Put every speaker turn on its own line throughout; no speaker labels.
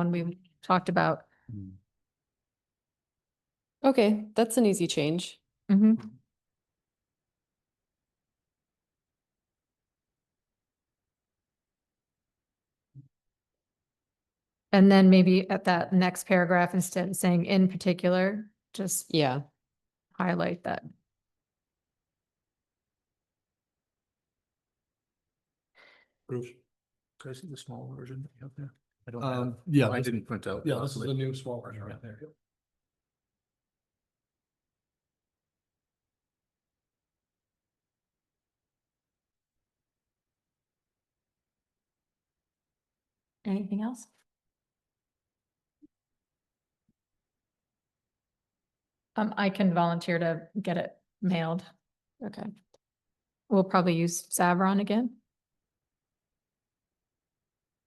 one we talked about.
Okay, that's an easy change.
hmm And then maybe at that next paragraph, instead of saying in particular, just
Yeah,
highlight that.
Bruce,
Can I see the small version that you have there? I don't have,
um, yeah,
I
this-
didn't print out.
yeah, this is
last
the
week.
new small version right there.
Anything else? Um, I can volunteer to get it mailed.
okay.
We'll probably use Savron again.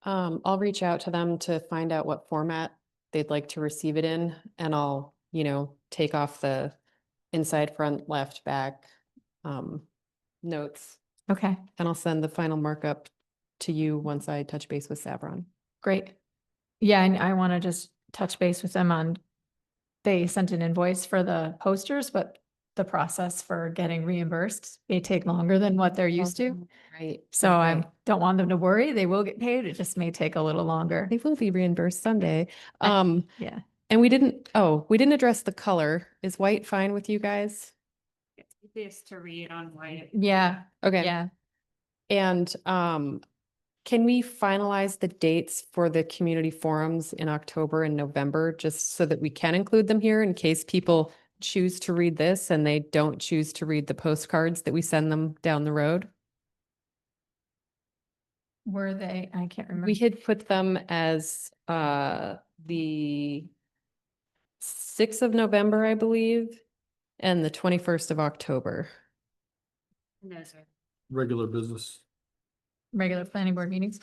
Um, I'll reach out to them to find out what format they'd like to receive it in and I'll, you know, take off the inside, front, left, back, um, notes.
Okay,
And I'll send the final markup to you once I touch base with Savron.
great. Yeah, and I want to just touch base with them on, they sent an invoice for the posters, but the process for getting reimbursed may take longer than what they're used to.
Right.
So I don't want them to worry. They will get paid. It just may take a little longer.
They will be reimbursed someday.
I-
Um,
Yeah.
and we didn't, oh, we didn't address the color. Is white fine with you guys?
It's easiest to read on white.
Yeah,
Okay.
yeah.
And um, can we finalize the dates for the community forums in October and November, just so that we can include them here in case people choose to read this and they don't choose to read the postcards that we send them down the road?
Were they, I can't remember.
We had put them as uh, the sixth of November, I believe, and the twenty-first of October.
And those are,
Regular business.
regular planning board meetings.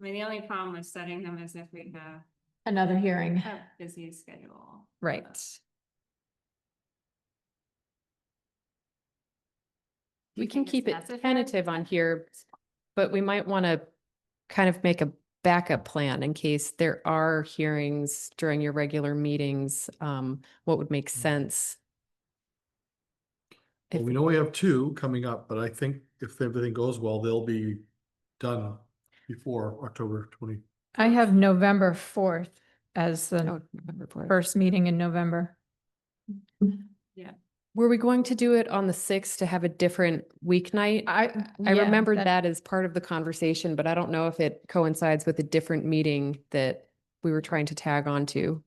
I mean, the only problem with setting them is if we have
Another hearing.
Oh.
a busy schedule.
Right.
We can keep it
discuss if you want.
tentative on here, but we might want to kind of make a backup plan in case there are hearings during your regular meetings, um, what would make sense?
Well,
If-
we know we have two coming up, but I think if everything goes well, they'll be done before October twenty.
I have November fourth as the
Oh, November fourth.
first meeting in November.
Were we going to do it on the sixth to have a different weeknight?
I.
I remembered that as part of the conversation, but I don't know if it coincides with a different meeting that we were trying to tag on to.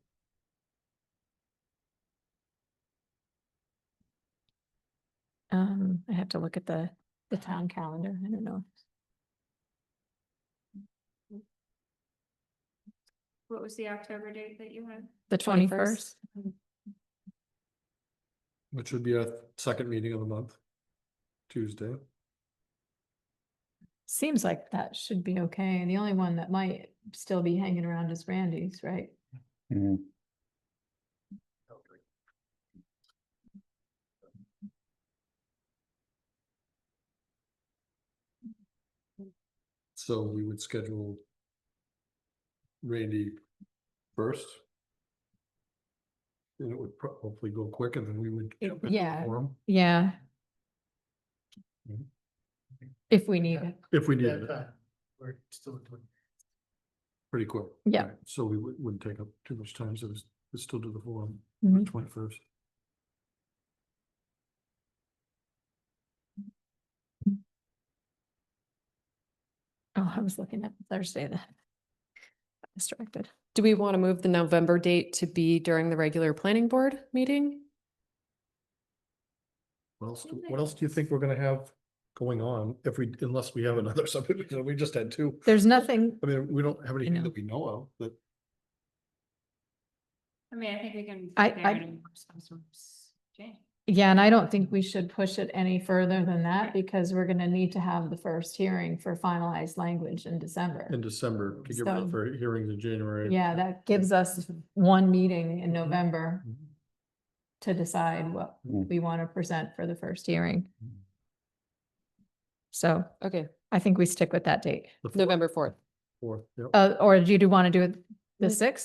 Um, I have to look at the, the town calendar. I don't know.
What was the October date that you had?
The
21st.
twenty-first?
Which would be our second meeting of the month, Tuesday.
Seems like that should be okay. The only one that might still be hanging around is Randy's, right?
So we would schedule Randy first. And it would pro- hopefully go quick and then we would.
It-
jump into
yeah.
forum
Yeah.
Mhm.
If we need it.
If we needed it,
We're still doing.
pretty quick.
Yeah.
Right, So we wou- wouldn't take up too much time, so it's, it's still do the forum,
Mhm.
twenty first.
Oh, I was looking at Thursday then. Distracted.
Do we want to move the November date to be during the regular planning board meeting?
What else, do- what else do you think we're gonna have going on if we, unless we have another subdivision, we just had two.
There's nothing,
I mean, we don't have anything
know.
that we know of, that
I mean, I think we can.
I-
prepare
I-
it and some sort of s- change.
yeah, and I don't think we should push it any further than that because we're gonna need to have the first hearing for finalized language in December.
in December, to get ready
So-
for hearings in January.
Yeah, that gives us one meeting in November
Mhm.
to decide what
Mm.
we want to present for the first hearing.
Mm.
So
Okay,
I think we stick with that date.
The fourth-
November fourth.
Fourth, yep.
Uh, or do you do want to do it The sixth?